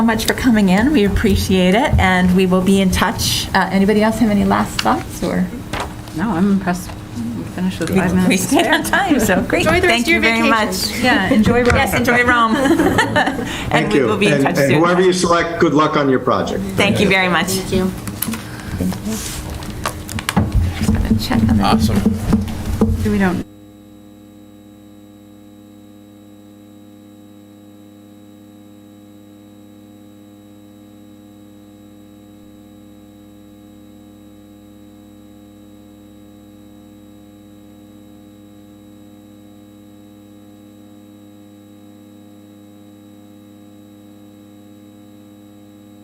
so much for coming in. We appreciate it, and we will be in touch. Uh, Anybody else have any last thoughts, or? No, I'm impressed. We finished with five We minutes. stayed on time, so great. Enjoy the rest Thank of you your very much. vacation. Yeah, enjoy Rome. Yes, enjoy Rome. And Thank we you. will be in And- touch And whoever you soon. select, good luck on your project. Thank you very much. Thank you. Just gonna check on that. Awesome. We don't.